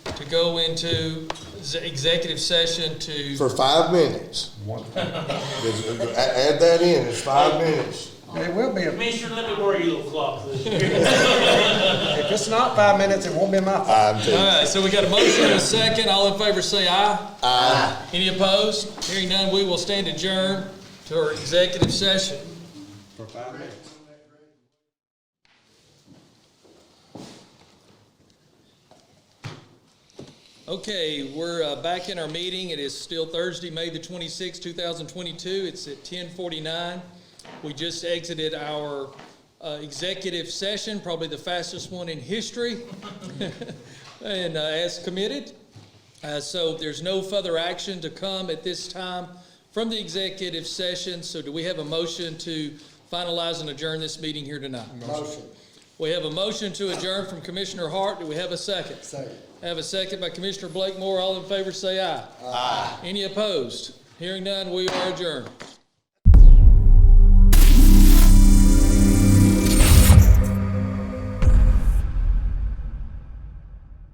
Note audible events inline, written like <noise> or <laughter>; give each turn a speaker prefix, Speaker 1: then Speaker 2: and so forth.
Speaker 1: go into z- executive session to,
Speaker 2: for five minutes. Just, uh, Add that in, it's five minutes.
Speaker 3: It will be, a-
Speaker 4: Commissioner, let me worry you a little clock this year.
Speaker 3: if it's not five minutes, it won't be my fault.
Speaker 2: I'm
Speaker 1: all
Speaker 2: taking,
Speaker 1: right, so we got a motion and a second, all in favor say aye. Aye. Any opposed? Hearing none, we will stand adjourned to our executive session.
Speaker 3: For five minutes.
Speaker 1: Okay, we're uh, back in our meeting. It is still Thursday, May the 26th, 2022. It's at 10:49. We just exited our uh, executive session, probably the fastest one in history, <laughs> and uh, as committed. Uh, So there's no further action to come at this time from the executive session. So do we have a motion to finalize and adjourn this meeting here tonight?
Speaker 3: Motion,
Speaker 1: We have a motion to adjourn from Commissioner Hart. Do we have a second?
Speaker 3: second.
Speaker 1: Have a second by Commissioner Blakemore. All in favor, say aye. Aye. Any opposed? Hearing none, we are adjourned.